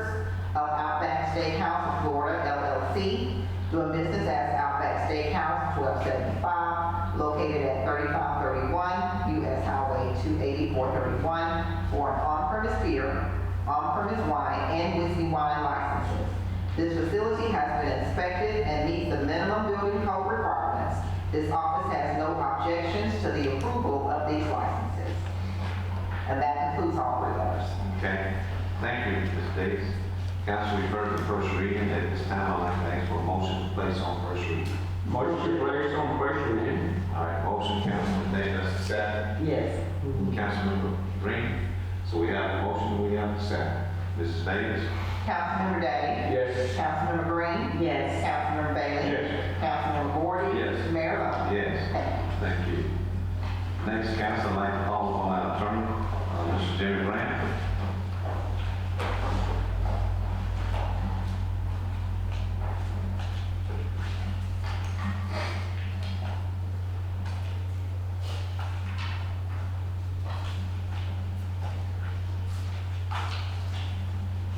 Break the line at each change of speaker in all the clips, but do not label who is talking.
of Outback Steakhouse of Florida LLC, doing business as Outback Steakhouse, 1275, located at 3531 US Highway 280, 431, for an on-premise beer, on-premise wine, and whiskey wine licenses. This facility has been inspected and meets the minimum building code requirements. This office has no objections to the approval of these licenses. And that concludes all three letters.
Okay, thank you, Ms. Davis. Council, we've heard the first reading, at this time, I'd like to ask for a motion to place on first reading.
Motion placed on first reading.
All right, motion, Councilman Davis, second,
Yes.
Councilmember Green. So we have a motion, we have a second. Mrs. Davis?
Councilmember Day?
Yes.
Councilmember Green? Yes. Councilmember Bailey?
Yes.
Councilmember Gordon?
Yes.
Mayor Lo?
Yes, thank you. Next, council, I'd like to call upon our attorney, uh, Mr. Jerry Grant.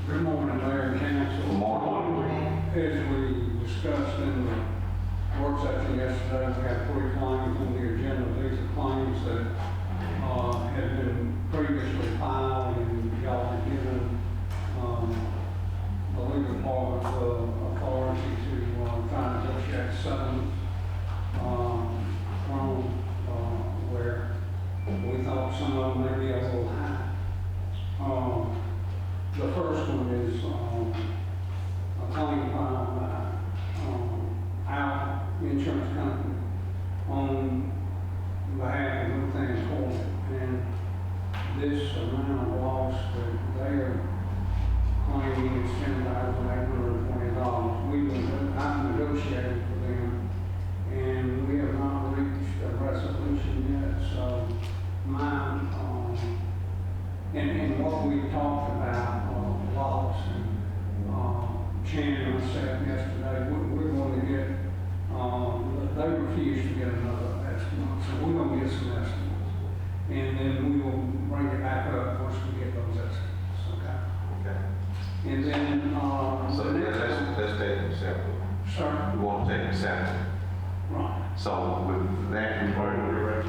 Good morning, Mayor and Council.
Good morning.
As we discussed in the work session yesterday, we have three claims on the agenda. These are claims that uh, had been previously filed and y'all were given um, the legal department uh, authority to uh, try and negotiate settlements um, from uh, where we thought some of them may be a little high. Um, the first one is, um, a claim filed by, uh, um, our insurance company on behalf of Luthans Court. And this amount of loss that they are claiming is ten thousand eight hundred and twenty dollars. We, nego- I negotiated for them, and we have not reached a resolution yet, so my, um, and, and what we talked about, uh, loss, and, um, Shannon and myself yesterday, we, we're gonna get, um, they refused to get another estimate, so we're gonna get some estimates. And then we will bring it back up once we get those estimates, okay?
Okay.
And then, um,
So
the
let's,
next
let's-
one,
let's take them separately.
sir,
We want to take them separately.
right,
So with that, we've heard,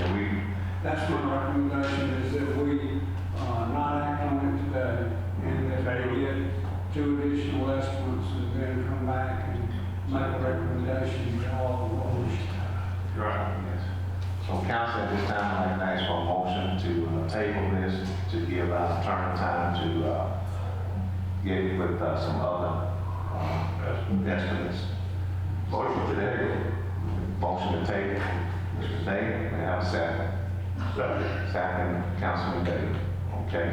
and we,
that's my recommendation, is that we, uh, not act on it today, and that we get two additional estimates, and then come back and make a recommendation to all the voters.
Yes. So council, at this time, I'd like to ask for a motion to uh, table this, to give us turn time to uh, get with uh, some other uh, estimates. Motion to table. Motion to table. Mr. Day, may I have a second? Second. Councilman Day. Okay.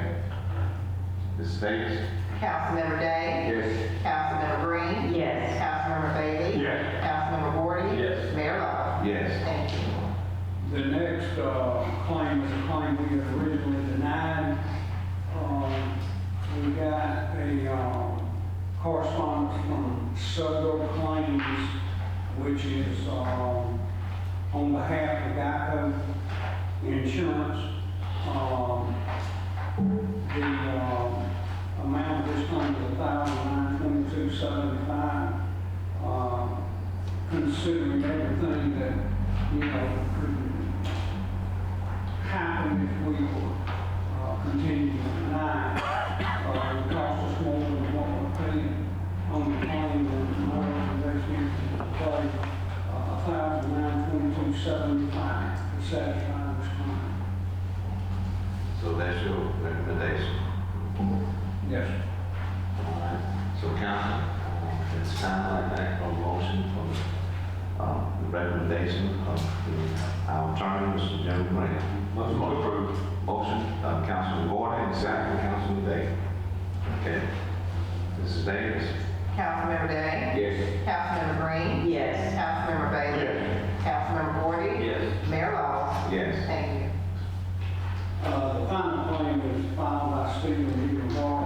Ms. Davis?
Councilmember Day?
Yes.
Councilmember Green? Yes. Councilmember Bailey?
Yes.
Councilmember Gordon?
Yes.
Mayor Lo?
Yes.
Thank you.
The next uh, claim is a claim we had originally denied. Um, We got a um, correspondence from Suggo Claims, which is um, on behalf of Geico Insurance. Um, The um, amount of this claim is $1,922.75 uh, considering everything that, you know, could happen if we were uh, continuing to deny. Uh, It cost us more than what we're paying on the claim, and my recommendation is to pay uh, a thousand nine twenty-two seventy-five to satisfy this claim.
So that's your recommendation.
Yes.
So council, it's time I make a motion for uh, the recommendation of the- our attorney, Mr. Jim Grant. Motion approved. Motion, uh, Councilman Gordon, and second, Councilman Day. Okay. Mrs. Davis?
Councilmember Day?
Yes.
Councilmember Green? Yes. Councilmember Bailey?
Yes.
Councilmember Gordon?
Yes.
Mayor Lo?
Yes.
Thank you.
Uh, The final claim was filed by Stephen D. Moore Uh, Uh, um, oh um, Uh,